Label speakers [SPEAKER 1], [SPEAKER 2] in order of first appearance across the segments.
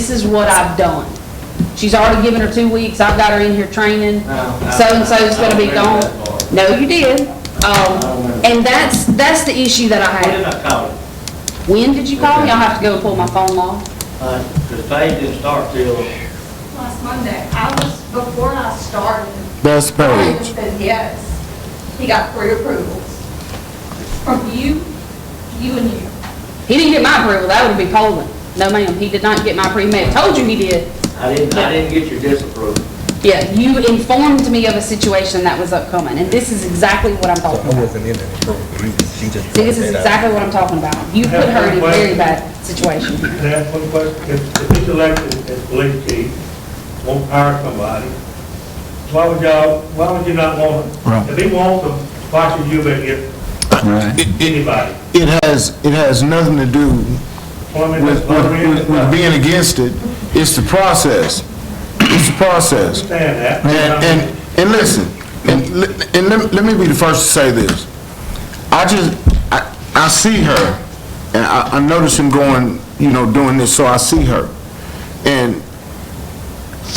[SPEAKER 1] this is what I've done. She's already given her two weeks, I've got her in here training,
[SPEAKER 2] No, no,
[SPEAKER 1] so-and-so's
[SPEAKER 2] I
[SPEAKER 1] gonna
[SPEAKER 2] don't
[SPEAKER 1] be
[SPEAKER 2] agree
[SPEAKER 1] gone.
[SPEAKER 2] with that part.
[SPEAKER 1] No, you did. Um, and that's, that's the issue that I
[SPEAKER 2] When did
[SPEAKER 1] had.
[SPEAKER 2] I call it?
[SPEAKER 1] When did you call me? I'll have to go pull my phone log.
[SPEAKER 2] Because Paige didn't start till,
[SPEAKER 3] Last Monday, I was, before I started.
[SPEAKER 4] That's
[SPEAKER 3] Brian
[SPEAKER 4] Paige.
[SPEAKER 3] said yes. He got three approvals. From you, you and you.
[SPEAKER 1] He didn't get my approval, that would be polling. No, ma'am, he did not get my pre-med. Told you he did.
[SPEAKER 2] I didn't, I didn't get your disapproval.
[SPEAKER 1] Yeah, you informed me of a situation that was upcoming, and this is exactly what I'm talking
[SPEAKER 5] I
[SPEAKER 1] about.
[SPEAKER 5] wasn't in any program, she just.
[SPEAKER 1] See, this is exactly what I'm talking about. You put her in a very bad situation.
[SPEAKER 6] Can I ask one question? If, if he's elected as police chief, won't hire somebody, why would y'all, why would you not want
[SPEAKER 4] Right.
[SPEAKER 6] him? If he wants him, why should you be against
[SPEAKER 4] Right.
[SPEAKER 6] anybody?
[SPEAKER 4] It has, it has nothing to do
[SPEAKER 6] Women,
[SPEAKER 4] with, with, with being against it. It's the process. It's the process.
[SPEAKER 6] Understand that.
[SPEAKER 4] And, and, and listen, and, li- and let, let me be the first to say this. I just, I, I see her, and I, I notice him going, you know, doing this, so I see her. And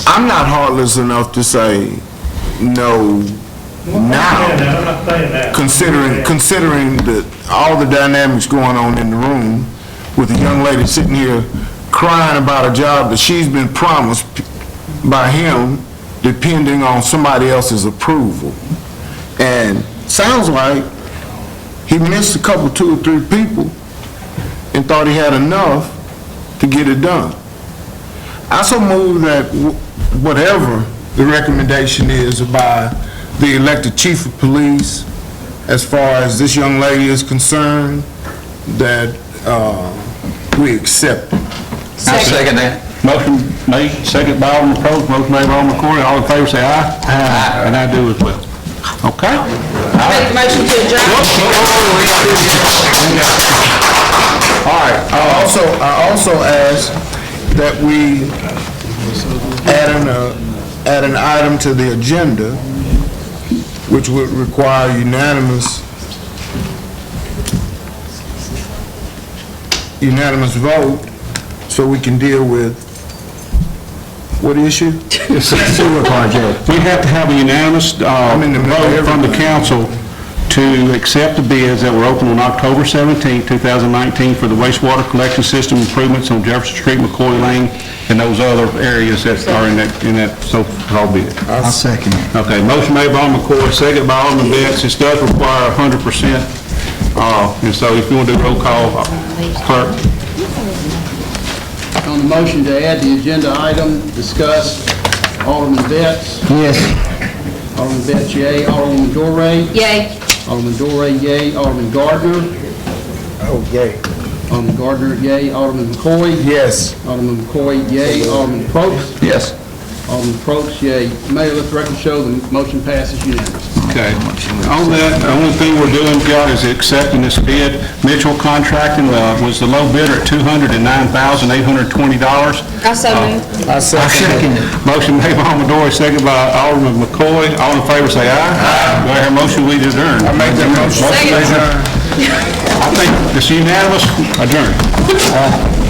[SPEAKER 4] I'm not heartless enough to say, no,
[SPEAKER 6] I'm not
[SPEAKER 4] now.
[SPEAKER 6] saying that, I'm not saying that.
[SPEAKER 4] considering,
[SPEAKER 6] I'm saying-
[SPEAKER 4] considering the, all the dynamics going on in the room with a young lady sitting here crying about a job that she's been promised by him depending on somebody else's approval. And sounds like he missed a couple, two or three people and thought he had enough to get it done. I so move that wh- whatever the recommendation is by the elected chief of police, as far as this young lady is concerned, that uh, we accept. it.
[SPEAKER 7] I second that.
[SPEAKER 8] Motion made, second by Alderman Probst, motion made by Alderman Corey, all in favor say aye. Aye. And I do as well. Okay?
[SPEAKER 1] Make a motion to adjourn.
[SPEAKER 4] All right, I also, I also ask that we add an, uh, add an item to the agenda, which would require unanimous, unanimous vote, so we can deal with, what issue?
[SPEAKER 8] It's a sewer project. We have to have a unanimous uh,
[SPEAKER 4] I'm in the middle of
[SPEAKER 8] vote from the
[SPEAKER 4] everything.
[SPEAKER 8] council to accept the bids that were open on October 17, 2019 for the wastewater collection system improvements on Jefferson Street, McCoy Lane, and those other areas that are in that, in that so-called bid.
[SPEAKER 4] I'll second it.
[SPEAKER 8] Okay, motion made by Alderman Corr, second by Alderman Betts. This does require 100%. Uh, And so if you want to do roll call, uh, clerk.
[SPEAKER 9] On the motion to add the agenda item discussed, Alderman Betts. Yes. Alderman Betts, yea. Alderman Dorey.
[SPEAKER 1] Yay.
[SPEAKER 9] Alderman Dorey, yea. Alderman Gardner.
[SPEAKER 5] Oh, yay.
[SPEAKER 9] Alderman Gardner, yea. Alderman McCoy.
[SPEAKER 4] Yes.
[SPEAKER 9] Alderman McCoy, yay. Alderman Probst.
[SPEAKER 7] Yes.
[SPEAKER 9] Alderman Probst, yea. Mayor, let the record show the motion passes unanimously.
[SPEAKER 8] Okay. On that, the only thing we're doing, God, is accepting this bid. Mitchell Contracting uh, was the low bidder at $209,820.
[SPEAKER 1] I so moved.
[SPEAKER 4] I second it.
[SPEAKER 8] Motion made by Alderman Dory, second by Alderman McCoy. All in favor, say aye. Aye. Do I hear a motion, we adjourn?
[SPEAKER 4] I make that motion.
[SPEAKER 8] Motion made by-
[SPEAKER 4] Second.
[SPEAKER 8] I think it's unanimous, adjourn.